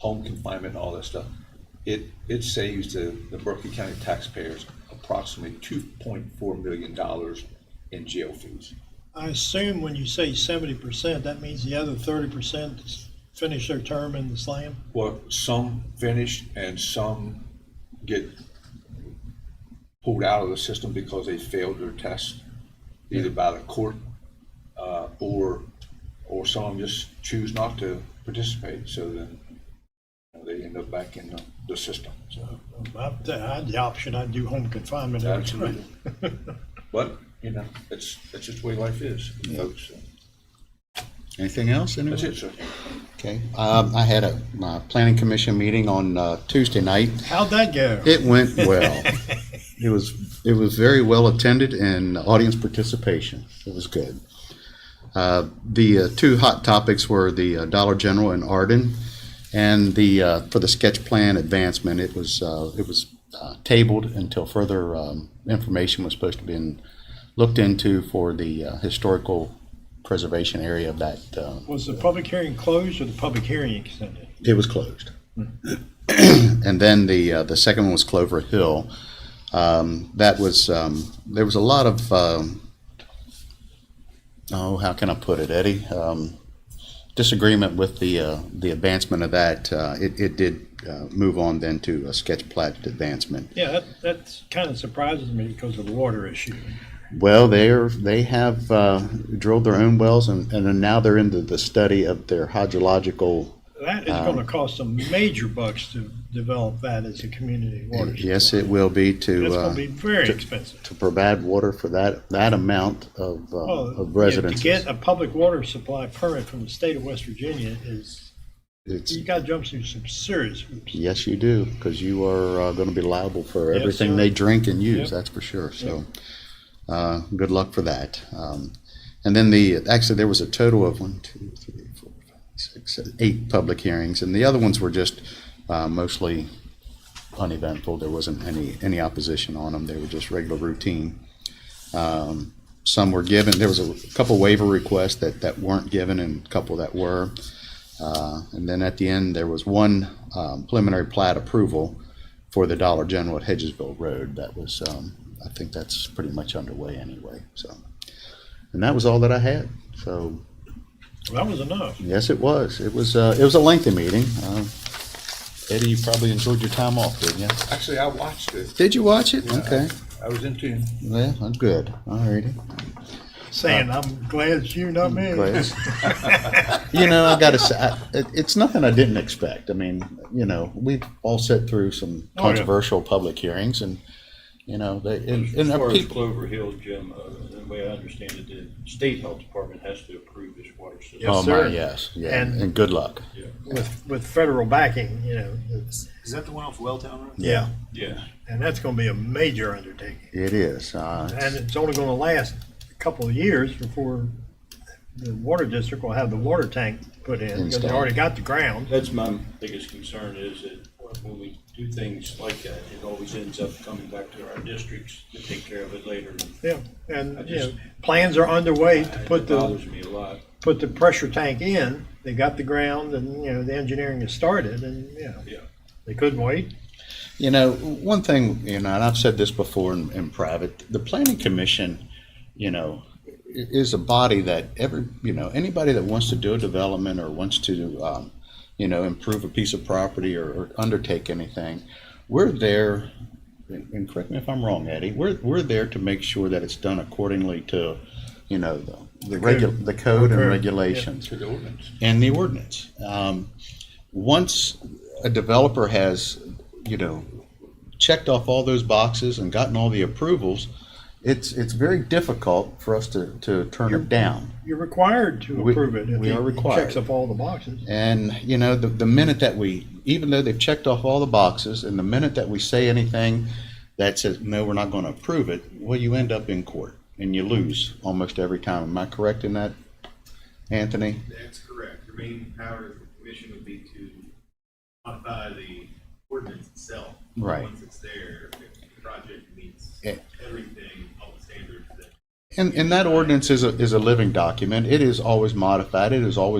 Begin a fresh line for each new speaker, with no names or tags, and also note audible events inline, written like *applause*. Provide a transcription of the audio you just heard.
home confinement, all that stuff, it, it saves the, the Berkeley County taxpayers approximately two point four million dollars in jail fees.
I assume when you say seventy percent, that means the other thirty percent finish their term in the slam?
Well, some finish and some get pulled out of the system because they failed their test, either by the court, uh, or, or some of them just choose not to participate, so then you know, they end up back in the, the system, so.
I I had the option, I'd do home confinement every time.
Absolutely. *laughs* But, you know, it's, it's just the way life is, folks.
Anything else?
That's
anyone?
it, sir.
Okay, um, I had a, my planning commission meeting on, uh, Tuesday night.
How'd that go?
It
*laughs*
went well. It was, it was very well attended and audience participation. It was good. Uh, the uh, two hot topics were the uh, Dollar General and Arden and the, uh, for the sketch plan advancement, it was, uh, it was uh, tabled until further, um, information was supposed to be in, looked into for the uh, historical preservation area of that, um,
Was the public hearing closed or the public hearing extended?
It was closed. *clears throat* And then the, uh, the second one was Clover Hill. Um, that was, um, there was a lot of, um, oh, how can I put it, Eddie? Um, disagreement with the, uh, the advancement of that. Uh, it, it did, uh, move on then to a sketch plat advancement.
Yeah, that, that kind of surprises me because of the water issue.
Well, they're, they have, uh, drilled their own wells and, and then now they're into the study of their hydrological.
That is
Uh,
gonna cost some major bucks to develop that as a community water.
Yes,
supply.
it will be to,
That's
uh,
gonna be very expensive.
to provide water for that, that amount of, uh,
Well,
of
To get
residents.
a public water supply permit from the state of West Virginia is,
It's,
you gotta jump through some serious hoops.
yes, you do, because you are, uh, gonna be liable for
Yes,
everything
sir.
they drink and
Yep.
use, that's for sure, so, uh, good luck for that. Um, and then the, actually, there was a total of one, two, three, four, five, six, seven, eight public hearings, and the other ones were just, uh, mostly uneventful, there wasn't any, any opposition on them, they were just regular routine. Um, some were given, there was a couple waiver requests that, that weren't given and a couple that were. Uh, And then at the end, there was one um, preliminary plat approval for the Dollar General at Hedgesville Road. That was, um, I think that's pretty much underway anyway, so. And that was all that I had. So,
That was enough.
yes, it was. It was, uh, it was a lengthy meeting. Um, Eddie, you probably enjoyed your time off, didn't you?
Actually, I watched it.
Did you watch it? Okay,
I was in tune.
well, I'm good. All righty.
Saying, I'm glad it's you, not me.
Glad. *laughs* You know, I gotta say, I- it, it's nothing I didn't expect. I mean, you know, we've all sat through some
yeah.
Oh,
controversial public hearings and, you know, they, and,
As
and our
far as
people,
Clover Hill, Jim, uh, the way I understand it, the state health department has to approve this water system.
Yes,
oh
sir.
my, yes, yeah,
And-
and good luck.
With, with federal backing, you know, it's,
Is that the one off Welltown Road?
yeah,
Yeah.
and that's gonna be a major undertaking.
It is, uh,
And it's only gonna last a couple of years before the water district will have the water tank put in, because they
Installed.
already got the ground.
That's my biggest concern is that when we do things like that, it always ends up coming back to our districts to take care of it later.
Yeah,
I
and, you know,
just-
plans are underway to
It
put the,
Bothers me a lot.
put the pressure tank in. They got the ground and, you know, the engineering has started and, you know,
Yeah.
they couldn't wait.
you know, one thing, you know, and I've said this before in, in private, the planning commission, you know, i- is a body that every, you know, anybody that wants to do a development or wants to, um, you know, improve a piece of property or, or undertake anything, we're there, and and correct me if I'm wrong, Eddie, we're, we're there to make sure that it's done accordingly to, you know, the, the regu, the
Code,
code and
yeah.
regulations
To the ordinance.
and the ordinance. Um, Once a developer has, you know, checked off all those boxes and gotten all the approvals, it's, it's very difficult for us to, to turn it down.
You're required to
We-
approve it. if
we are
it
required.
Checks up all the boxes.
And, you know, the, the minute that we, even though they've checked off all the boxes, and the minute that we say anything that says, no, we're not gonna approve it, well, you end up in court and you lose almost every time. Am I correct in that, Anthony?
That's correct. The remaining power of the commission would be to modify the ordinance itself.
Right.
Once it's there, if the project meets
Yeah.
everything, all the standards that
And, and that ordinance is a, is a living document. It is always modified. It is always